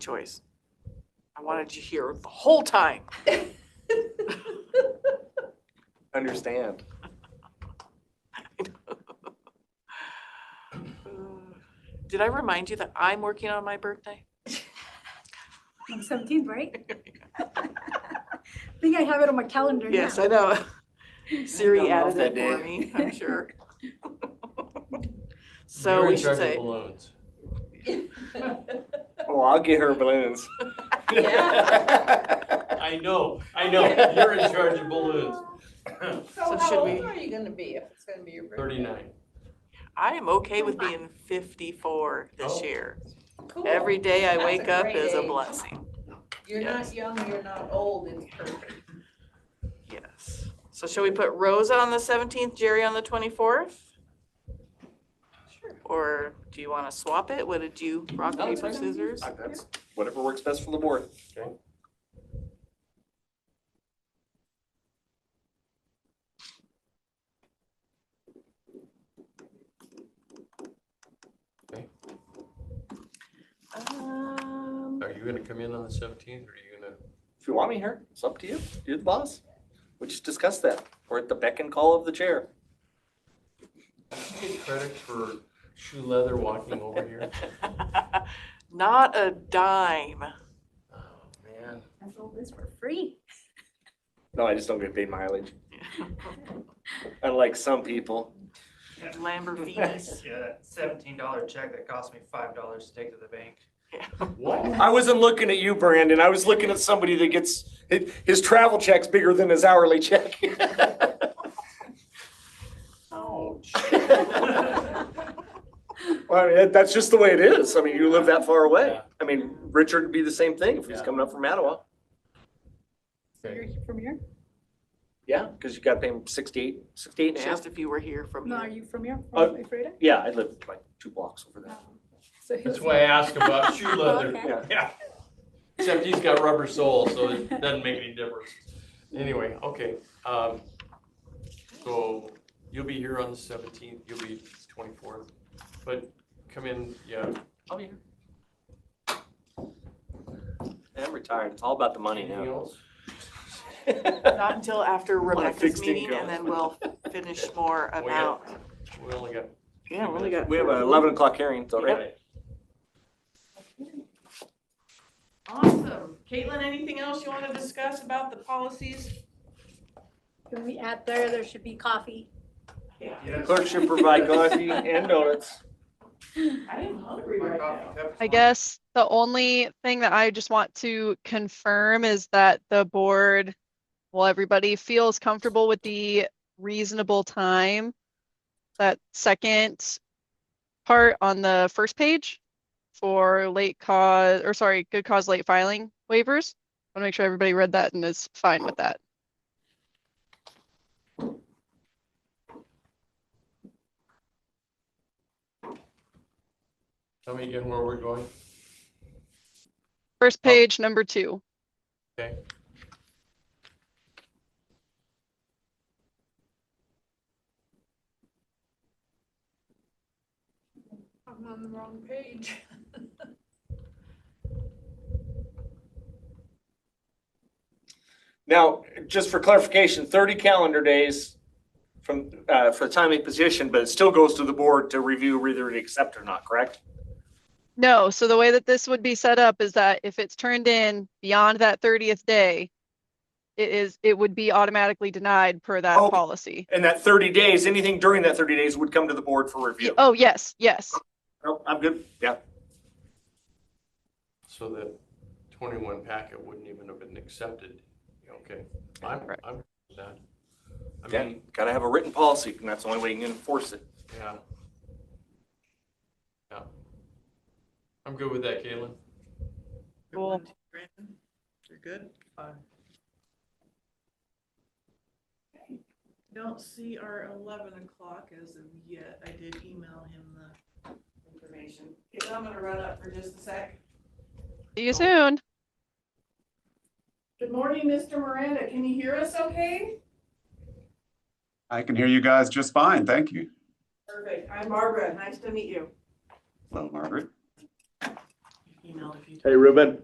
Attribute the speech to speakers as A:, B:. A: Joyce, I wanted you here the whole time.
B: Understand.
A: Did I remind you that I'm working on my birthday?
C: On seventeenth, right? I think I have it on my calendar now.
A: Yes, I know. Siri
B: Don't know if
A: added it
B: they
A: for
B: did.
A: me, I'm sure. So
D: You're
A: we
D: in
A: should
D: charge of
A: say,
D: balloons.
B: Well, Oh, I'll get her balloons.
D: I know, I know, you're in charge of balloons.
A: So
E: So
A: should
E: how
A: we-
E: old are you gonna be if it's gonna be your birthday?
D: Thirty-nine.
A: I am okay with being fifty-four this
D: Oh.
A: year.
E: Cool.
A: Every day I
E: That's a
A: wake up
E: great
A: is a
E: age.
A: blessing,
E: You're
A: yes.
E: not young, you're not old, it's perfect.
A: yes. So shall we put Rosa on the seventeenth, Jerry on the twenty-fourth?
E: Sure.
A: Or do you want to swap it? What did you, rock,
D: No, it's
A: paper,
D: fine.
A: scissors?
B: That's Whatever works best for the board.
A: Um,
D: Are you gonna come in on the seventeenth, or are you gonna?
B: If you want me here, it's up to you. You're the boss. We just discussed that. We're at the beck and call of the chair.
D: Did you get credit for shoe leather walking over here?
A: Not a dime.
D: Oh, man.
C: I sold this for free.
B: No, I just don't get paid mileage, unlike some people.
A: Lamborghinis.
F: Yeah, that seventeen dollar check that cost me five dollars to take to the bank.
D: What?
B: I wasn't looking at you, Brandon. I was looking at somebody that gets, his, his travel check's bigger than his hourly check.
D: Ouch.
B: Well, I mean, that- that's just the way it is. I mean, you live that far away.
D: Yeah.
B: I mean, Richard would be the same thing if he's
D: Yeah.
B: coming up from Mattawa.
D: Okay.
E: from here?
B: Yeah, because you got to pay him 68, 68 and a half.
A: Just if you were here from
C: No, are
A: here.
C: you from here?
B: Uh,
C: From Ephrata?
B: Yeah, I live like two blocks over there.
C: So
D: That's
C: he'll-
D: why I asked about shoe leather.
C: Okay.
B: Yeah.
D: Yeah. Except he's got rubber soles, so it doesn't make any difference. Anyway, okay, um, so you'll be here on the seventeenth, you'll be twenty-fourth, but come in, yeah, I'll be here.
B: I'm retired. It's all about the money
D: Anything
B: now.
D: else?
A: Not until after Rebecca's
B: fixed
A: meeting
B: income.
A: and then we'll finish more
D: Oh, yeah.
A: about.
D: We only got.
A: Yeah, we only got.
B: We have an 11 o'clock hearing, so right?
A: Awesome. Caitlin, anything else you want to discuss about the policies?
C: When we add there, there should be coffee.
A: Yeah.
F: Yes,
B: Clerk should provide coffee and donuts.
A: I am hungry
F: my coffee cup.
G: I guess the only thing that I just want to confirm is that the board, well, everybody feels comfortable with the reasonable time. That second part on the first page for late cause, or sorry, good cause late filing waivers. I want to make sure everybody read that and is fine with that.
D: Tell me again where we're going.
G: First
D: Oh.
G: page, number two.
E: I'm on the wrong page.
B: Now, just for clarification, 30 calendar days from, uh, for the time of position, but it still goes to the board to review whether to accept or not, correct?
G: No, so the way that this would be set up is that if it's turned in beyond that 30th day, it is, it would be automatically denied per that
B: Oh.
G: policy.
B: And that 30 days, anything during that 30 days would come to the board for
G: Y-
B: review.
G: Oh, yes, yes.
B: No, I'm good. Yeah.
D: So the twenty-one packet wouldn't even have been accepted. Okay, I'm, I'm good with that. I
B: Yeah.
D: mean,
B: Got to have a written policy, and that's the only way you can enforce it.
D: yeah. Yeah. I'm good with that, Caitlin.
G: Cool.
A: You're good?
F: Fine.
A: Don't see our eleven o'clock as of yet. I did email him the information. Caitlin, I'm gonna run up for just a sec.
G: See you soon.
A: Good morning, Mr. Miranda. Can you hear us okay?
H: I can hear you guys just fine. Thank you.
A: Perfect. I'm Barbara. Nice to meet you.
H: Hello, Margaret.
I: emailed if you.
A: Hey, Ruben.